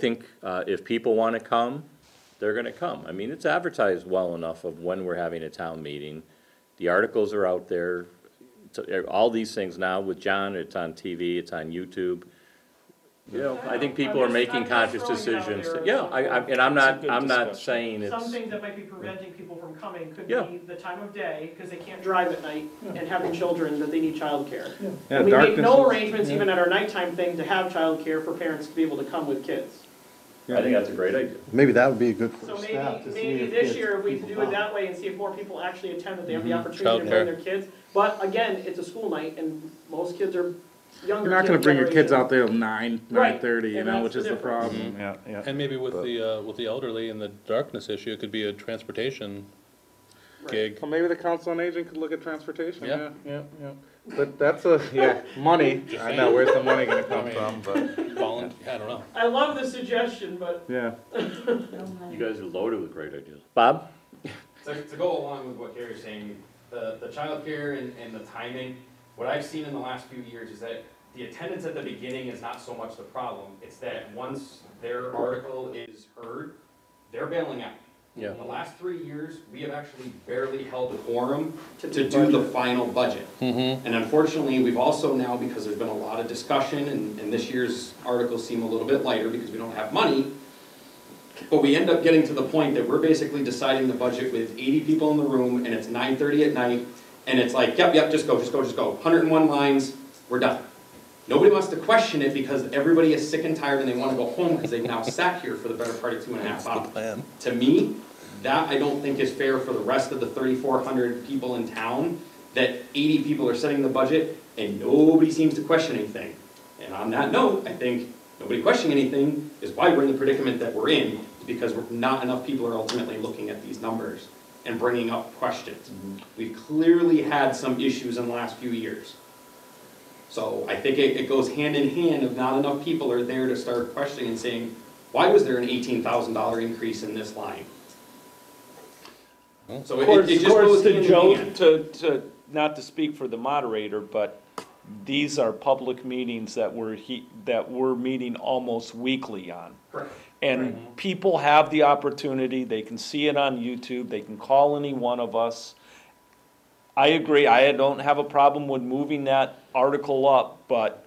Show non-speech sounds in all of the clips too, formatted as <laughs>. think uh, if people want to come, they're going to come. I mean, it's advertised well enough of when we're having a town meeting. The articles are out there. So, eh, All these things now with John, it's on TV, it's on YouTube. You know, I think people are I'm just- making I'm just conscious throwing it out decisions. there. Yeah, I, I, and I'm It's a not, good I'm not discussion. saying Some it's, things that might be preventing people from coming could Yeah. be the time of day, because they can't drive at night, and having children, that they need childcare. Yeah, And we make darkness no is- arrangements even at our nighttime thing to have childcare for parents to be able to come with kids. I think that's a great idea. Maybe that would be a good So first step. maybe, to see maybe if this kids- year, we people do it come. that way and see if more people actually attend, that they have the opportunity to bring their kids. But again, it's a school night, and most kids are younger. You're not gonna bring your kids out there till nine, Right. nine thirty, you And know, that's which the is the difference. problem. Yeah, yeah. And maybe with the, uh, with the elderly and the darkness issue, it could be a transportation gig. Well, maybe the council on aging could look at transportation, Yeah. yeah, yeah, yeah. But that's a, yeah, money, I know, where's the money gonna come from, <laughs> but, Volunteer, I don't know. I love the suggestion, but yeah. You guys are loaded with great ideas. Bob? to, to go along with what Carrie's saying, the, the childcare and, and the timing, what I've seen in the last few years is that the attendance at the beginning is not so much the problem, it's that once their article is heard, they're bailing out. Yeah. In the last three years, we have actually barely held a quorum To to do do the final budget. Mm-hmm. And unfortunately, we've also now, because there's been a lot of discussion, and, and this year's articles seem a little bit lighter because we don't have money, but we end up getting to the point that we're basically deciding the budget with eighty people in the room, and it's nine thirty at night, and it's like, yep, yep, just go, just go, just go, hundred and one lines, we're done. Nobody wants to question it because everybody is sick and tired and they wanna go home because they've now sat here for the better part of two and a half hours. To me, that I don't think is fair for the rest of the thirty-four hundred people in town, that eighty people are setting the budget and nobody seems to question anything. And on that note, I think nobody questioning anything is why we're in the predicament that we're in, because we're- not enough people are ultimately looking at these numbers and bringing up questions. We've clearly had some issues in the last few years. So I think it, it goes hand in hand of not enough people are there to start questioning and saying, why was there an eighteen thousand dollar increase in this line? So Of it, course, it just of course, goes hand to in Joe, hand. to, to, not to speak for the moderator, but these are public meetings that we're, he, that we're meeting almost weekly on. Correct. And people have the opportunity, they can see it on YouTube, they can call any one of us. I agree, I don't have a problem with moving that article up, but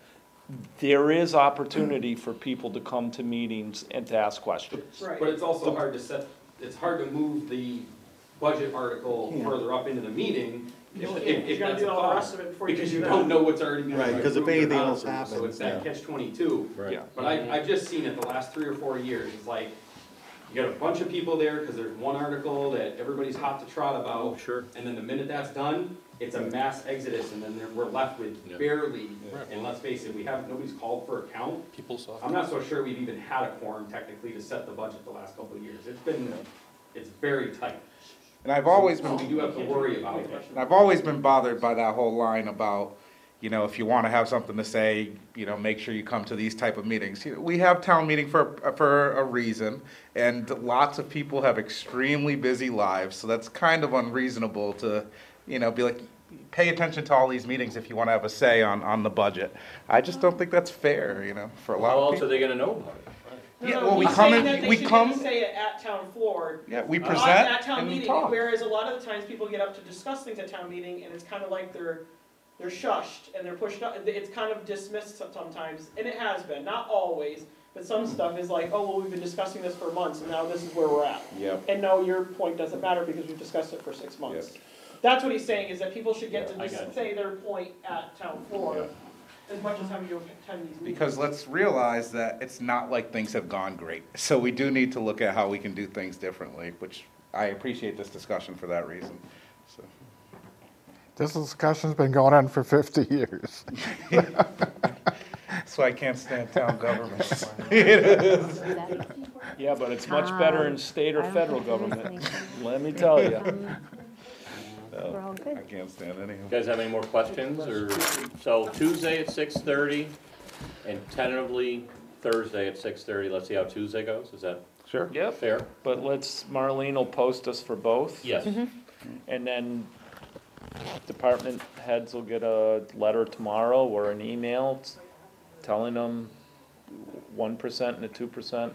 there is opportunity for people to come to meetings and to ask questions. Right. But it's also hard to set, it's hard to move the budget article further up into the meeting if, You can't. if, You if gotta that's do a all the problem. rest of it before you Because do you that. don't know what's already been Right, approved 'cause if or not anything else approved, So it's that happens, catch twenty-two. Right. Yeah. But I, I've just seen it the last three or four years, it's like, you got a bunch of people there, because there's one article that everybody's hot to trot about. Sure. And then the minute that's done, it's a mass exodus, and then there- we're left Yeah. with barely, Right. and let's face it, we have, nobody's called for a count. People saw. I'm not so sure we've even had a quorum technically to set the budget the last couple of years. It's been, it's very tight. And I've always So we been, do have to worry about it. and I've always been bothered by that whole line about, you know, if you wanna have something to say, you know, make sure you come to these type of meetings. You know, We have town meeting for, for a reason, and lots of people have extremely busy lives, so that's kind of unreasonable to, you know, be like, pay attention to all these meetings if you wanna have a say on, on the budget. I just don't think that's fair, you know, for a lot How of else are people. they going to know about it? No, Yeah, no, well, we he's come saying in- that they we should get to come- Say it at town floor, Yeah, we on present that Oh, town and we meeting, talk. whereas a lot of the times people get up to discuss things at town meeting and it's kind of like they're, they're shushed and they're pushed up, it's kind of dismissed some- sometimes, and it has been, not always, but some stuff is like, oh, well, we've been discussing this for months and now this is where we're at. Yep. And no, your point doesn't matter because we've discussed it for six months. That's what he's saying, is that people should get to Yeah, I got just you. say their point at town floor, as much as having to attend these meetings. Because let's realize that it's not like things have gone great. So we do need to look at how we can do things differently, which I appreciate this discussion for that reason. So, This discussion's been going on for 50 <laughs> years. so I can't stand town government. <laughs> Yeah, but it's much better in state or I don't federal think there is government, let me tell you. <laughs> We're all I good. can't stand any of them. You guys have any more questions, or, so Tuesday at six-thirty, and tentatively Thursday at six-thirty, let's see how Tuesday goes, is that Sure. Yep, fair? but let's, Marlene will post us for both. Yes, And then department heads will get a letter tomorrow or an email telling them one percent and a two percent.